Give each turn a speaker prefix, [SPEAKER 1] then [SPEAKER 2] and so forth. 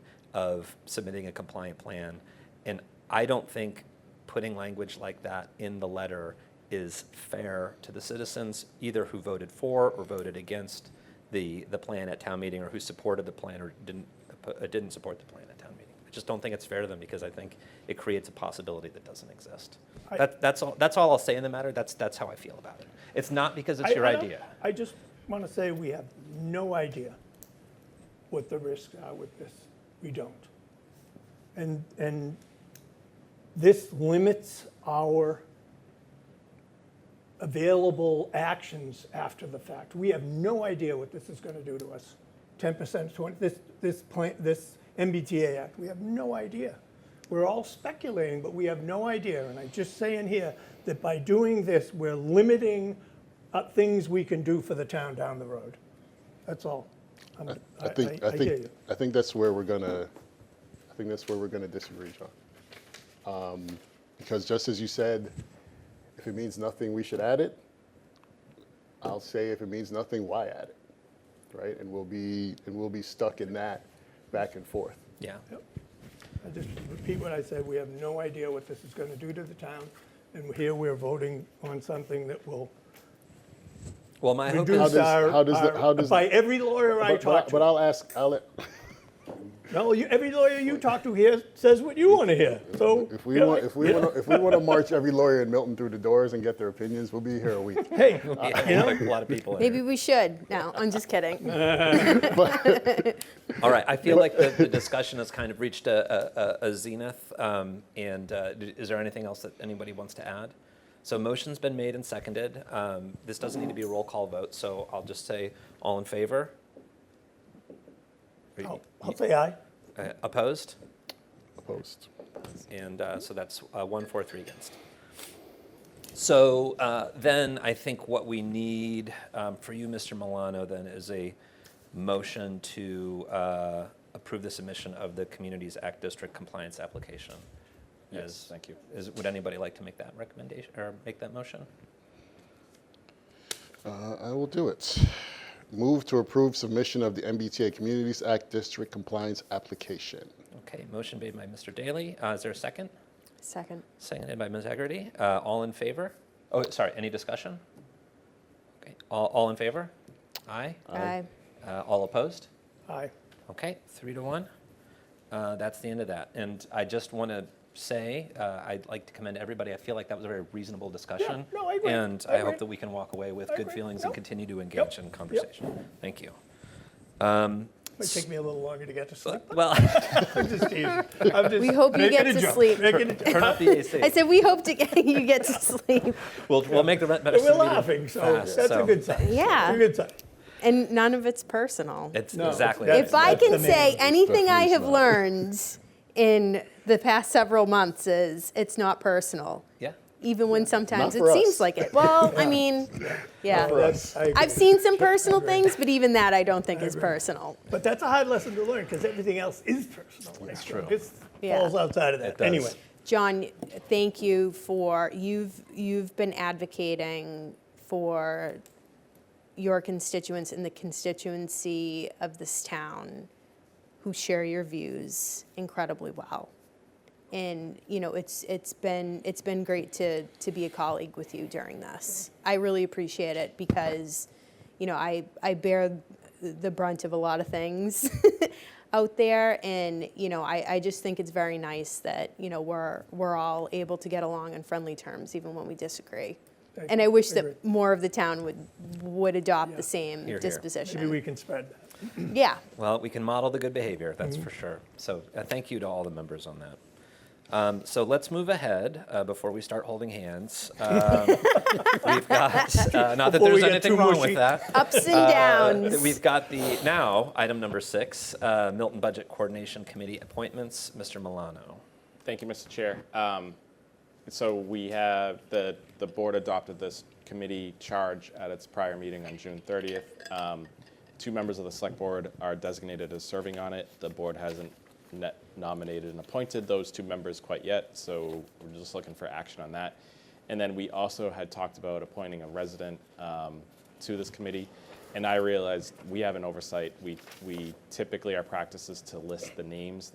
[SPEAKER 1] of submitting a compliant plan. And I don't think putting language like that in the letter is fair to the citizens, either who voted for or voted against the, the plan at town meeting, or who supported the plan or didn't, uh, didn't support the plan at town meeting. I just don't think it's fair to them, because I think it creates a possibility that doesn't exist.
[SPEAKER 2] I-
[SPEAKER 1] That, that's all, that's all I'll say in the matter, that's, that's how I feel about it. It's not because it's
[SPEAKER 2] I-
[SPEAKER 1] your
[SPEAKER 2] I don't-
[SPEAKER 1] idea.
[SPEAKER 2] I just want to say we have no idea what the risks are with this. We don't. And, and this limits our available actions after the fact. We have no idea what this is going to do to us. 10%, 20, this, this plan, this MBTA Act, we have no idea. We're all speculating, but we have no idea. And I just say in here that by doing this, we're limiting uh, things we can do for the town down the road. That's all. I'm-
[SPEAKER 3] I think, I
[SPEAKER 2] hear
[SPEAKER 3] think,
[SPEAKER 2] you.
[SPEAKER 3] I think that's where we're gonna, I think that's where we're gonna disagree, John. Um, Because just as you said, if it means nothing, we should add it. I'll say if it means nothing, why add it, right? And we'll be, and we'll be stuck in that back and forth.
[SPEAKER 1] Yeah.
[SPEAKER 2] I just repeat what I said, we have no idea what this is gonna do to the town, and here we're voting on something that will
[SPEAKER 1] Well, my hope
[SPEAKER 2] reduce
[SPEAKER 1] is,
[SPEAKER 3] does-
[SPEAKER 2] our,
[SPEAKER 3] how does the- how
[SPEAKER 2] our-
[SPEAKER 3] does-
[SPEAKER 2] by every lawyer I
[SPEAKER 3] But- but I-
[SPEAKER 2] talk
[SPEAKER 3] But
[SPEAKER 2] to.
[SPEAKER 3] I'll ask, I'll, let-
[SPEAKER 2] No, you, every lawyer you talk to here says what you wanna hear, so.
[SPEAKER 3] if we want, if we want, if we want to march every lawyer in Milton through the doors and get their opinions, we'll be here a week.
[SPEAKER 2] Hey,
[SPEAKER 1] yeah,
[SPEAKER 2] you know,
[SPEAKER 1] a lot of people. in here.
[SPEAKER 4] Maybe we should. No, I'm just kidding.
[SPEAKER 1] All right, I feel like the, the discussion has kind of reached a, a, a- a zenith. Um, and uh, d- is there anything else that anybody wants to add? So motion's been made and seconded. Um, this doesn't need to be a roll call vote, so I'll just say all in favor. Are you-
[SPEAKER 2] I'll I'll say aye.
[SPEAKER 1] uh, opposed?
[SPEAKER 3] Post.
[SPEAKER 1] And uh, so that's uh, one, four, three against. So uh, then I think what we need um, for you, Mr. Milano, then is a motion to uh, approve the submission of the Communities Act District compliance application. Yes, thank you. Is, would anybody like to make that recommendation or make that motion?
[SPEAKER 3] Uh, I will do it. Move to approve submission of the MBTA Communities Act District Compliance Application.
[SPEAKER 1] Okay, motion made by Mr. Daly. Uh, is there a second?
[SPEAKER 4] Second.
[SPEAKER 1] Seconded by Ms. Hegarty. Uh, all in favor? Oh, sorry, any discussion? Okay, all, all in favor? Aye.
[SPEAKER 4] Aye.
[SPEAKER 1] Uh, all opposed?
[SPEAKER 2] Aye.
[SPEAKER 1] Okay, three to one. Uh, that's the end of that. And I just want to say, uh, I'd like to commend everybody. I feel like that was a very reasonable discussion.
[SPEAKER 2] no, I agree.
[SPEAKER 1] And
[SPEAKER 2] I
[SPEAKER 1] I hope
[SPEAKER 2] agree.
[SPEAKER 1] that we can walk away with
[SPEAKER 2] I
[SPEAKER 1] good
[SPEAKER 2] agree.
[SPEAKER 1] feelings
[SPEAKER 2] Yep.
[SPEAKER 1] and continue to engage in conversation. Thank you. Um,
[SPEAKER 2] Might take me a little longer to get to sleep.
[SPEAKER 1] Well,
[SPEAKER 2] I'm just teasing. I'm just
[SPEAKER 4] We hope you
[SPEAKER 2] making
[SPEAKER 4] get
[SPEAKER 2] a
[SPEAKER 4] to
[SPEAKER 2] joke,
[SPEAKER 4] sleep.
[SPEAKER 2] making a joke.
[SPEAKER 1] turn off the
[SPEAKER 4] I
[SPEAKER 1] AC.
[SPEAKER 4] said, we hope to get, you get to sleep.
[SPEAKER 1] We'll, we'll make the rent better.
[SPEAKER 2] We're laughing, so
[SPEAKER 1] fast,
[SPEAKER 2] that's a
[SPEAKER 1] so-
[SPEAKER 2] good sign.
[SPEAKER 4] Yeah.
[SPEAKER 2] It's a good sign.
[SPEAKER 4] And none of it's personal.
[SPEAKER 1] It's
[SPEAKER 2] No,
[SPEAKER 1] exactly.
[SPEAKER 2] that's-
[SPEAKER 4] If I can
[SPEAKER 2] the name
[SPEAKER 4] say
[SPEAKER 2] of
[SPEAKER 4] anything I
[SPEAKER 3] definitely
[SPEAKER 4] have
[SPEAKER 3] not.
[SPEAKER 4] learned in the past several months is it's not personal.
[SPEAKER 1] Yeah.
[SPEAKER 4] Even when
[SPEAKER 3] Not
[SPEAKER 4] sometimes it
[SPEAKER 3] for
[SPEAKER 4] seems
[SPEAKER 3] us.
[SPEAKER 4] like it. Well, I mean, yeah.
[SPEAKER 2] That's- I agree.
[SPEAKER 4] I've seen some personal things, but even that I don't think is personal.
[SPEAKER 2] But that's a hard lesson to learn because everything else is personal. That's
[SPEAKER 1] true.
[SPEAKER 2] It
[SPEAKER 4] Yeah.
[SPEAKER 2] falls outside of that.
[SPEAKER 1] It does.
[SPEAKER 2] Anyway,
[SPEAKER 4] John, thank you for, you've, you've been advocating for your constituents and the constituency of this town who share your views incredibly well. And, you know, it's, it's been, it's been great to, to be a colleague with you during this. I really appreciate it because, you know, I, I bear the brunt of a lot of things out there. And, you know, I, I just think it's very nice that, you know, we're, we're all able to get along on friendly terms, even when we disagree.
[SPEAKER 2] I
[SPEAKER 4] And I wish
[SPEAKER 2] agree.
[SPEAKER 4] that more of the town would, would adopt the same
[SPEAKER 1] Here, here.
[SPEAKER 2] maybe
[SPEAKER 4] disposition.
[SPEAKER 2] we can spread that.
[SPEAKER 4] Yeah.
[SPEAKER 1] Well, we can model the good behavior, that's
[SPEAKER 2] Mm-hmm.
[SPEAKER 1] for sure. So uh, thank you to all the members on that. Um, so let's move ahead uh, before we start holding hands. Um, we've got, uh, not that
[SPEAKER 2] Before we
[SPEAKER 1] there's
[SPEAKER 2] get
[SPEAKER 1] anything
[SPEAKER 2] too
[SPEAKER 1] wrong
[SPEAKER 2] mushy.
[SPEAKER 1] with that.
[SPEAKER 4] Ups and downs.
[SPEAKER 1] Uh, We've got the, now, item number six, uh, Milton Budget Coordination Committee appointments, Mr. Milano.
[SPEAKER 5] Thank you, Mr. Chair. Um, So we have, the, the board adopted this committee charge at its prior meeting on June 30th. Um, Two members of the select board are designated as serving on it. The board hasn't net nominated and appointed those two members quite yet, so we're just looking for action on that. And then we also had talked about appointing a resident um, to this committee. And I realized we have an oversight. We, we typically, our practice is to list the names